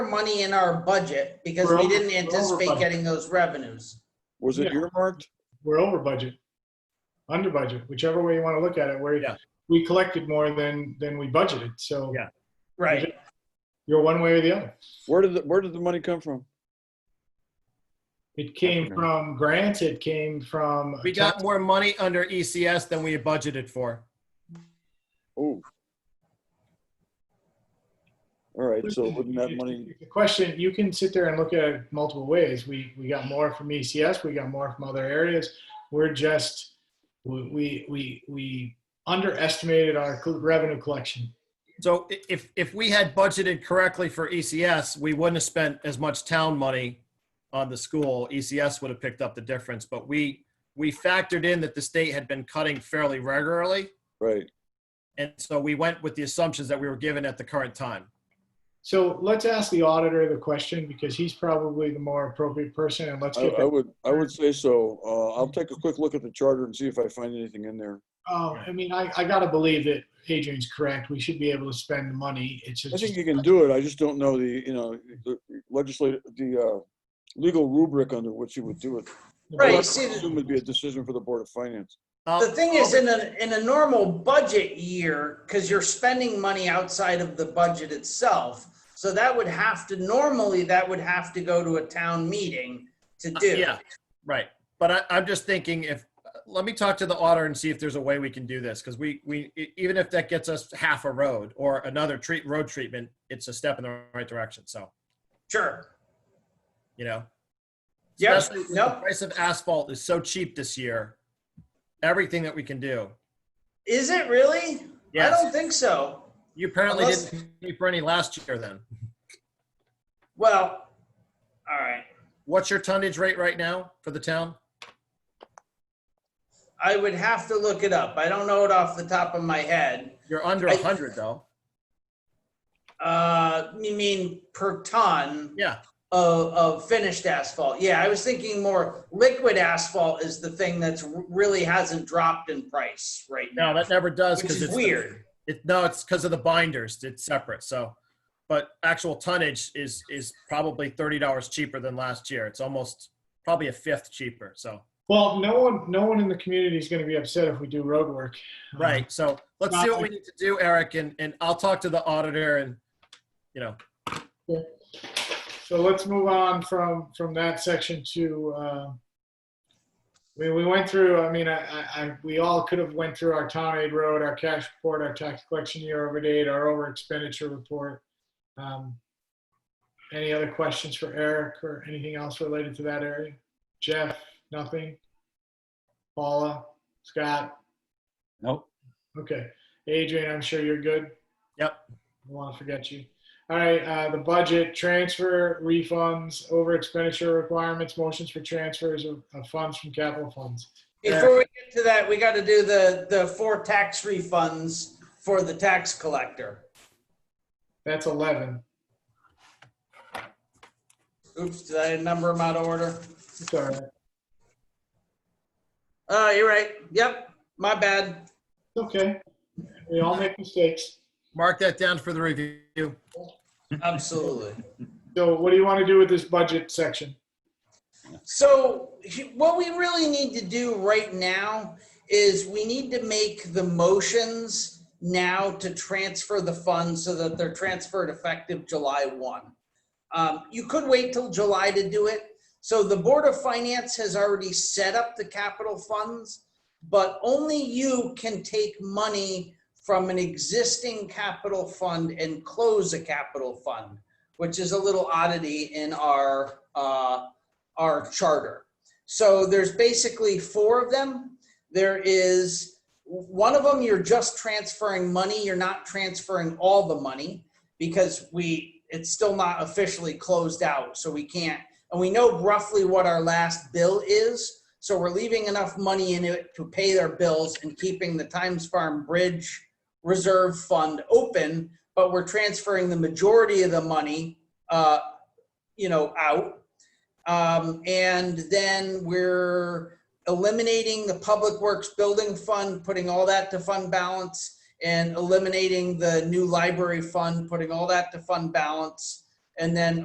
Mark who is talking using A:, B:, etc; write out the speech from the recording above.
A: money in our budget because
B: We're
A: we
B: over-
A: didn't
B: we're over
A: anticipate
B: budget.
A: getting those revenues.
C: Was it
B: Yeah.
C: earmarked?
B: we're over budget, under budget, whichever way you want to look at it, where
D: Yeah.
B: we collected more than, than we budgeted. So
D: Yeah.
A: Right.
B: you're one way or the other.
C: Where did, the where did the money come from?
B: It came
C: Definitely.
B: from grants, it came from.
D: We got more money under ECS than we had budgeted for.
C: Oh. All right, so wouldn't that money,
B: The question, you can sit there and look at it multiple ways. We, we got more from ECS, we got more from other areas. We're just, we, we, we, we underestimated our co- revenue collection.
D: So i- if, if we had budgeted correctly for ECS, we wouldn't have spent as much town money on the school. ECS would have picked up the difference, but we, we factored in that the state had been cutting fairly regularly.
C: right,
D: And so we went with the assumptions that we were given at the current time.
B: So let's ask the auditor the question because he's probably the more appropriate person and let's
C: I,
B: get
C: I
B: that
C: would, I would say so. Uh, I'll take a quick look at the charter and see if I find anything in there.
B: Oh, I mean, I, I gotta believe that Adrian's correct. We should be able to spend the money. It's
C: I
B: just,
C: think you can do it, I just don't know the, you know, the legislative, the, uh, legal rubric under which you would do it.
A: Right,
C: I
A: you see the-
C: assume Would be a decision for the Board of Finance.
D: Um,
A: The thing is, in a, in a normal budget year, because you're spending money outside of the budget itself, so that would have to, normally, that would have to go to a town meeting to do.
D: Uh, Yeah, right. But I, I'm just thinking if, let me talk to the auditor and see if there's a way we can do this. Cause we, we, e- even if that gets us half a road or another treat, road treatment, it's a step in the right direction. So,
A: Sure.
D: you know?
A: Yep,
D: Especially with The
A: nope.
D: price of asphalt is so cheap this year. Everything that we can do.
A: Is it really? I
D: Yes.
A: don't think so.
D: You apparently
A: Unless-
D: didn't pay for any last year then.
A: Well, all right.
D: What's your tonnage rate right now for the town?
A: I would have to look it up. I don't know it off the top of my head.
D: You're under
A: I-
D: a hundred though.
A: Uh, you mean per ton?
D: Yeah.
A: of, of finished asphalt. Yeah, I was thinking more liquid asphalt is the thing that's r- really hasn't dropped in price right now.
D: No, that never does.
A: Which
D: 'cause
A: is
D: it's the-
A: weird.
D: It, no, it's because of the binders. It's separate. So, but actual tonnage is, is probably $30 cheaper than last year. It's almost probably a fifth cheaper. So,
B: well, no one, no one in the community is gonna be upset if we do road work.
A: Uh-huh.
D: right. So let's see what we need to do, Eric. And, and I'll talk to the auditor and, you know,
B: So let's move on from, from that section to, uh, we, we went through, I mean, I, I, I- we all could have went through our town aid road, our cash report, our tax collection year over date, our over expenditure report. Um, Any other questions for Eric or anything else related to that area? Jeff, nothing? Paula, Scott?
E: Nope.
B: Okay. Adrian, I'm sure you're good.
D: Yep.
B: I want to forget you. All right, uh, the budget, transfer, refunds, over expenditure requirements, motions for transfers of, of funds from capital funds.
A: Before we get to that, we got to do the, the four tax refunds for the tax collector.
B: That's 11.
A: Oops, did I number them out of order?
B: It's all right. It's
A: Uh, you're right. Yep, my bad.
B: okay. We all make mistakes.
D: mark that down for the review.
A: Absolutely.
B: So what do you want to do with this budget section?
A: So what we really need to do right now is we need to make the motions now to transfer the funds so that they're transferred effective July 1. Um, You could wait till July to do it. So the Board of Finance has already set up the capital funds, but only you can take money from an existing capital fund and close a capital fund, which is a little oddity in our uh, our charter. So there's basically four of them. There is, one of them, you're just transferring money, you're not transferring all the money because we, it's still not officially closed out, so we can't, and we know roughly what our last bill is, so we're leaving enough money in it to pay their bills and keeping the Times Farm Bridge Reserve Fund open, but we're transferring the majority of the money, uh, you know, out. Um, and then we're eliminating the Public Works Building Fund, putting all that to fund balance, and eliminating the new library fund, putting all that to fund balance, And then